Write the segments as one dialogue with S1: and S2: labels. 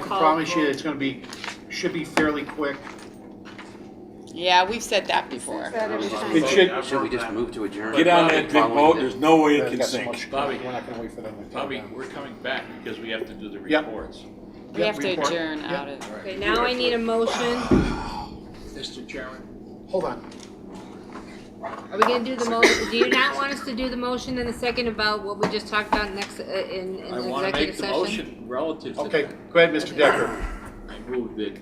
S1: call.
S2: promise you, it's gonna be, should be fairly quick.
S1: Yeah, we've said that before.
S3: That every time.
S2: It should,
S4: Should we just move to adjourn?
S5: Get on that big boat, there's no way it
S2: They've
S5: can
S2: got so
S5: sink.
S2: much-
S6: Bobby.
S2: We're not gonna wait for them to come
S6: Bobby,
S2: down.
S6: we're coming back because we have to do the
S2: Yep.
S6: reports.
S1: We
S2: Yep,
S1: have to
S2: report.
S1: adjourn
S2: Yep.
S1: out of.
S3: Okay, now I need a motion.
S6: Mr. Chairman?
S2: Hold on,
S3: Are we gonna do the mo, do you not want us to do the motion in the second about what we just talked about next, uh, in, in
S6: I
S3: the
S6: want to make
S3: executive
S6: the
S3: session?
S6: motion relative to
S2: okay,
S6: that.
S2: go ahead, Mr. Decker.
S6: I move that,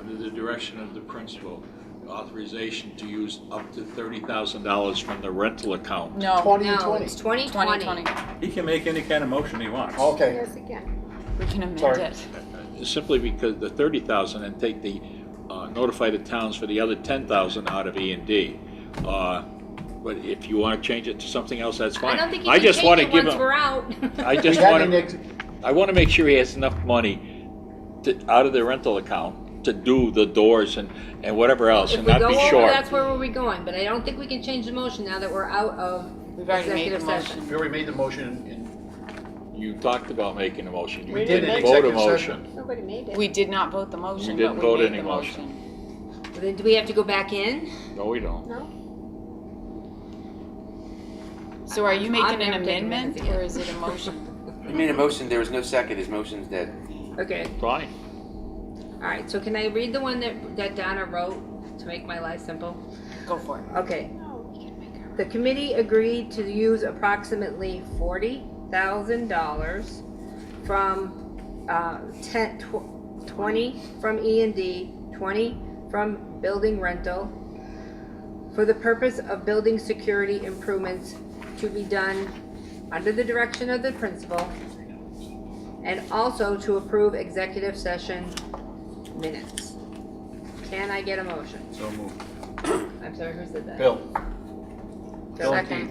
S6: under the direction of the principal, authorization to use up to thirty thousand dollars from the rental account.
S1: No,
S2: Twenty and
S3: No,
S2: twenty.
S3: it's twenty
S1: twenty
S3: twenty.
S1: twenty.
S5: He can make any kind of motion he wants.
S2: Okay,
S3: Yes, again.
S1: We can amend
S2: Sorry.
S1: it.
S6: Simply because the thirty thousand and take the, uh, notify the towns for the other ten thousand out of E and D. Uh, But if you want to change it to something else, that's
S3: I
S6: fine.
S3: don't think you
S6: I
S3: can
S6: just
S3: change
S6: want to
S3: it
S6: give
S3: once
S6: him.
S3: we're out.
S6: I
S2: we
S6: just
S2: had an
S6: want
S2: ex-
S6: to, I want to make sure he has enough money to, out of the rental account to do the doors and, and whatever else
S3: If
S6: and
S3: we
S6: not
S3: go
S6: be
S3: over,
S6: short.
S3: that's where we're going, but I don't think we can change the motion now that we're out of
S1: We've already made the
S3: executive
S1: motion.
S3: session.
S2: we already made the motion and
S6: You talked about making a motion. You
S2: We did
S6: didn't
S2: make
S6: vote a
S2: executive session.
S6: motion.
S3: Nobody made
S1: We did not vote the motion,
S6: We
S1: but
S6: didn't
S1: we
S6: vote
S1: made
S6: any
S1: the
S6: motion.
S1: motion.
S3: Do we have to go back in?
S6: No, we don't.
S3: No.
S1: So are you
S3: I'm
S1: making an
S3: never taking
S1: amendment
S3: minutes again.
S1: or is it a motion?
S4: He made a motion, there was no second, his motion's dead.
S3: Okay,
S6: Fine.
S3: all right, so can I read the one that, that Donna wrote to make my life simple?
S1: Go for it.
S3: Okay. The committee agreed to use approximately forty thousand dollars from, uh, ten, tw- twenty from E and D, twenty from building rental for the purpose of building security improvements to be done under the direction of the principal and also to approve executive session minutes. Can I get a motion?
S5: So moved.
S3: I'm sorry, who said that?
S2: Bill. Bill and
S3: Second,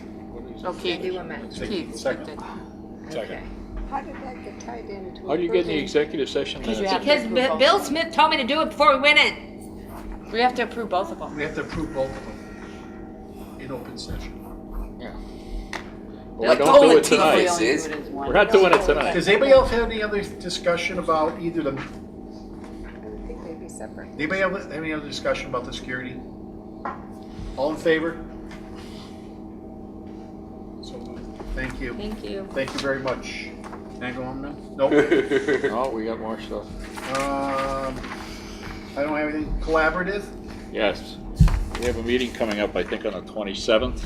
S3: Andy
S1: Okay.
S3: Womack.
S1: Keith,
S2: Second.
S1: seconded.
S3: Okay.
S7: How did that get tied into?
S6: How do you get in the
S7: approving-
S6: executive session
S1: Because you
S6: minutes?
S1: have-
S3: Because B- Bill Smith told me to do it before we went in.
S1: We have to approve both of them.
S2: We have to approve both of them in open session.
S6: Well, We don't do it tonight.
S4: This is,
S6: We're not doing it tonight.
S2: Does anybody else have any other discussion about either the,
S7: I would think they'd be separate.
S2: anybody have have any other discussion about the security? All in favor? So moved. Thank you.
S3: Thank you.
S2: Thank you very much. Can I go home now? Nope.
S4: Second.
S6: No, we got more stuff.
S2: Um, I don't have anything collaborative.
S6: Yes. We have a meeting coming up, I think, on the 27th.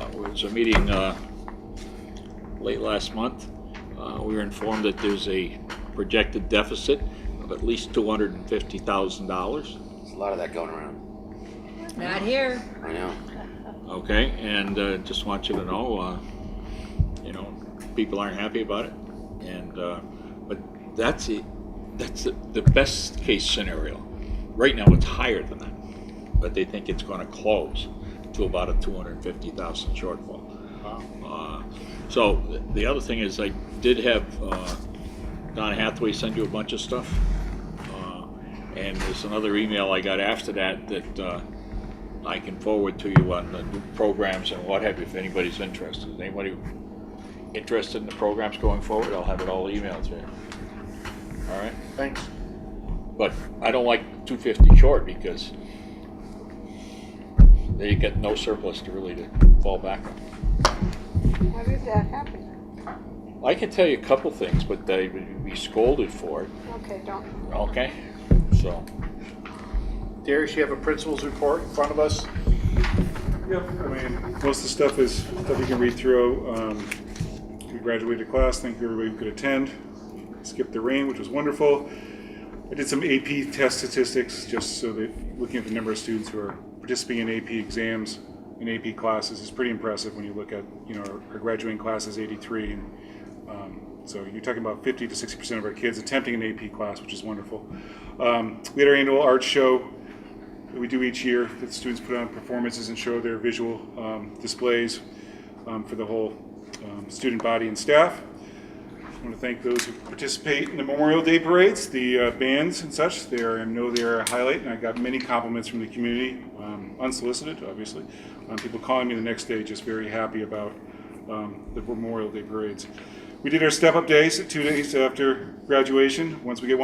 S6: Uh, It was a meeting uh, late last month. Uh, We were informed that there's a projected deficit of at least $250,000.
S4: There's a lot of that going around,
S3: Not here.
S4: I know.
S6: Okay, and uh, just want you to know, uh, you know, people aren't happy about it, and uh, but that's it. That's the, the best case scenario. Right now, it's higher than that, but they think it's going to close to about a two hundred fifty thousand shortfall. Uh, so th- the other thing is, I did have uh, Don Hathaway send you a bunch of stuff, uh, and there's another email I got after that that. Uh, I can forward to you on the new programs and what have you, if anybody's interested. Is Anybody interested in the programs going forward, I'll have it all emailed to you. All right?
S2: Thanks.
S6: But I don't like two fifty short because they get no surplus to really to fall back on.
S7: How did that happen?
S6: I can tell you a couple things, but they would be scolded for it,
S7: Okay, don't.
S6: okay? So,
S2: Darius, you have a principal's report in front of us?
S8: Yep, I mean, most of the stuff is stuff you can read through. Um, We graduated class, thank you everybody who could attend. Skipped the rain, which was wonderful. I did some AP test statistics, just so that, looking at the number of students who are participating in AP exams and AP classes is pretty impressive when you look at, you know, our- our graduating class is 83. and um, So you're talking about 50 to 60% of our kids attempting an AP class, which is wonderful. Um, We had our annual art show that we do each year, that students put on performances and show their visual um, displays um, for the whole um, student body and staff. I want to thank those who participate in the Memorial Day parades, the uh, bands and such. They are, I know they are a highlight, and I got many compliments from the community, um, unsolicited, obviously. Um, People calling me the next day just very happy about um, the Memorial Day parades. We did our step-up days, two days after graduation. Once we get one.